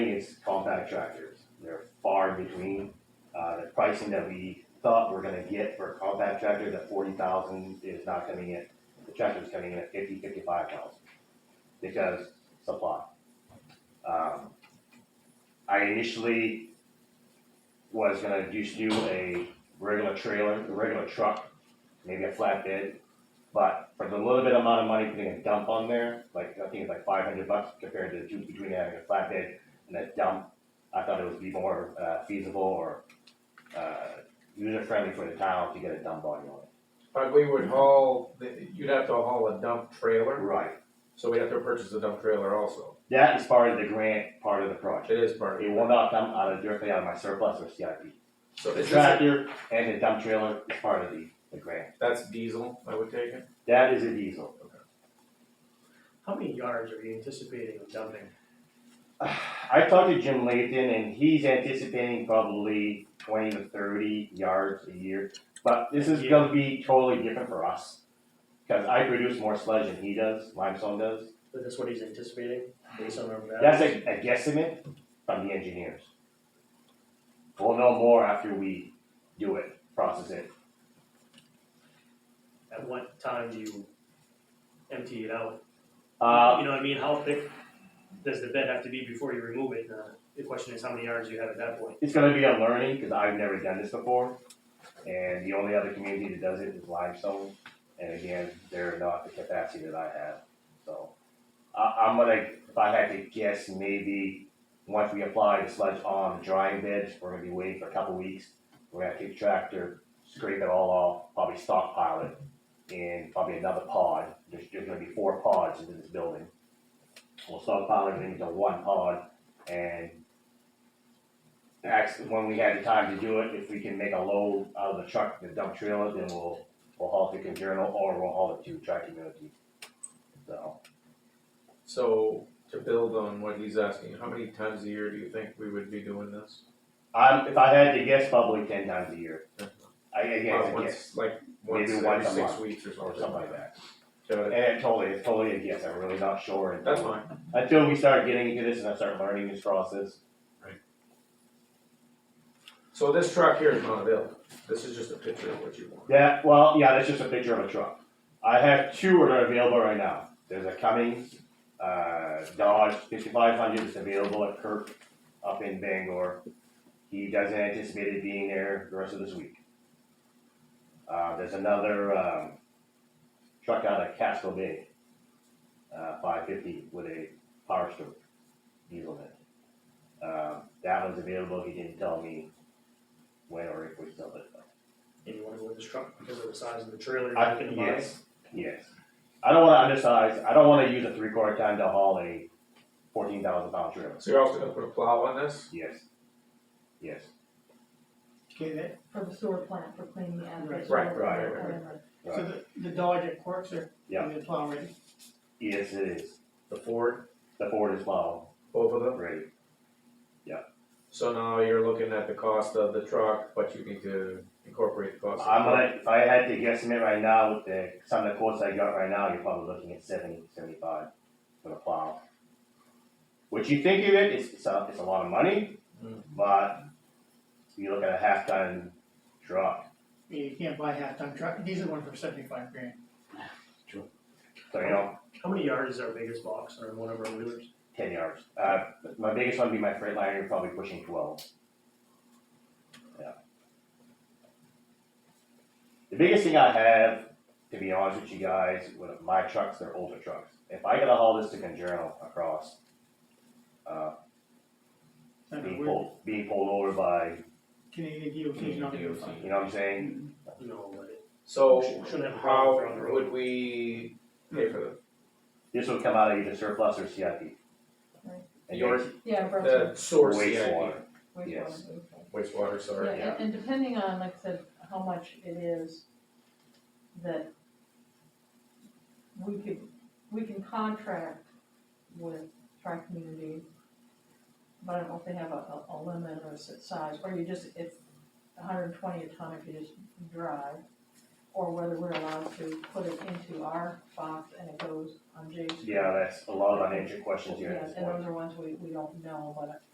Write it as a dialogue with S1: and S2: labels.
S1: compact tractors. They're far in between. Uh, the pricing that we thought we're gonna get for a compact tractor, that forty thousand is not coming in. The tractor's coming in at fifty, fifty-five thousand because supply. Um, I initially was gonna just do a regular trailer, a regular truck, maybe a flatbed. But for the little bit amount of money putting a dump on there, like I think it's like five hundred bucks compared to the difference between having a flatbed and a dump. I thought it would be more uh, feasible or uh, user friendly for the town to get a dump body on it.
S2: But we would haul, you'd have to haul a dump trailer,
S1: Right.
S2: so we'd have to purchase a dump trailer also.
S1: That is part of the grant, part of the project.
S2: It is part
S1: It
S2: of
S1: will
S2: it.
S1: not come out of directly out of my surplus or CIP.
S2: So
S1: The
S2: is this,
S1: tractor and the dump trailer is part of the, the grant.
S2: that's diesel, I would take it?
S1: That is a diesel.
S3: How many yards are you anticipating of dumping?
S1: I talked to Jim Layton and he's anticipating probably twenty to thirty yards a year. But this is gonna be totally different for us. Cause I produce more sludge than he does, limestone does.
S3: Is this what he's anticipating based on our?
S1: That's a, a guesstimate from the engineers. We'll know more after we do it, process it.
S3: At what time do you empty it out?
S1: Uh,
S3: You know what I mean? How thick does the bed have to be before you remove it? Uh, The question is how many yards you have at that point?
S1: it's gonna be a learning, cause I've never done this before. And the only other community that does it is limestone, and again, they're not the capacity that I have, so. I, I'm gonna, if I had to guess, maybe, once we apply the sludge on the drying beds, we're gonna be waiting for a couple weeks. We're gonna take the tractor, scrape it all off, probably stockpile it in probably another pod, there's, there's gonna be four pods into this building. We'll stockpile it into one pod, and ask when we had the time to do it, if we can make a load out of the truck, the dump trailer, then we'll, we'll haul it to Conjono or we'll haul it to Tri Community. So,
S2: So to build on what he's asking, how many times a year do you think we would be doing this?
S1: I'm, if I had to guess, probably ten times a year. I, I guess,
S2: Well,
S1: I
S2: Uh, once-
S1: guess,
S2: Like once
S1: Maybe once
S2: every
S1: a
S2: six
S1: month
S2: weeks or
S1: or
S2: something.
S1: something like that.
S2: Got
S1: And
S2: it.
S1: it totally, it's totally a guess, I'm really not sure. until-
S2: That's fine.
S1: Until we start getting into this and I start learning this process.
S2: So this truck here is not available. This is just a picture of what you want.
S1: Yeah, well, yeah, that's just a picture of a truck. I have two that are available right now. There's a Cummins, uh, Dodge fifty-five hundred that's available at Kirk up in Bangor. He doesn't anticipate it being there the rest of this week. Uh, there's another, um, truck out of Castle Bay, uh, five fifty with a power stroke diesel in it. Um, that one's available, he didn't tell me when or if we sell it, but-
S3: And you wanna go with this truck because of the size of the trailer
S1: I,
S3: you're gonna buy?
S1: yes, yes. I don't wanna undersize, I don't wanna use a three quarter ton to haul a fourteen thousand pound trailer.
S2: So you're also gonna put a plow on this?
S1: Yes, yes,
S4: Okay, that,
S5: for the sewer plant for cleaning the
S4: Right,
S5: average.
S2: right, right, right,
S4: so
S1: right,
S4: the, the Dodge at Quercs are,
S1: Yeah.
S4: they're plowing,
S1: yes, it is.
S2: The Ford,
S1: The Ford is well,
S2: both of them?
S1: great,
S2: So now you're looking at the cost of the truck, but you need to incorporate the cost. of the
S1: I'm
S2: truck.
S1: gonna, if I had to guesstimate right now with the, some of the quotes I got right now, you're probably looking at seventy, seventy-five for the plow. What you think of it, it's, it's a, it's a lot of money,
S2: Mm.
S1: but you look at a half ton truck,
S4: I mean, you can't buy a half-ton truck, these are one for seventy-five grand.
S1: so you know,
S3: How many yards is our biggest box on one of our wheelers?
S1: ten yards. Uh, my biggest one would be my Freightliner, probably pushing twelve. Yeah. The biggest thing I have, to be honest with you guys, with my trucks, they're older trucks. If I gotta haul this to Conjono across, uh,
S4: I mean,
S1: being
S4: we're-
S1: pulled, being pulled over by,
S4: Canadian DOT's not gonna
S2: Canadian
S4: fund
S1: you know what I'm saying?
S3: No, but it-
S2: So
S3: Shouldn't have a
S2: how
S3: problem for on the road.
S2: would we pay for
S1: This would come out of either surplus or CIP.
S5: Right.
S1: And
S2: Yours-
S5: Yeah,
S2: the,
S5: Brooklyn,
S2: the source
S1: Wastewater.
S2: CIP?
S5: wastewater.
S1: yes.
S2: Wastewater, sorry.
S5: Yeah,
S1: yeah.
S5: and, and depending on, like I said, how much it is that we could, we can contract with tri-community, but I don't know if they have a, a, a limit or a set size, or you just, it's hundred and twenty a ton if you just drive, or whether we're allowed to put it into our box and it goes on Jay's.
S1: Yeah, that's a lot of unanswered questions here
S5: Yeah,
S1: at this
S5: and
S1: point.
S5: those are ones we, we don't know, but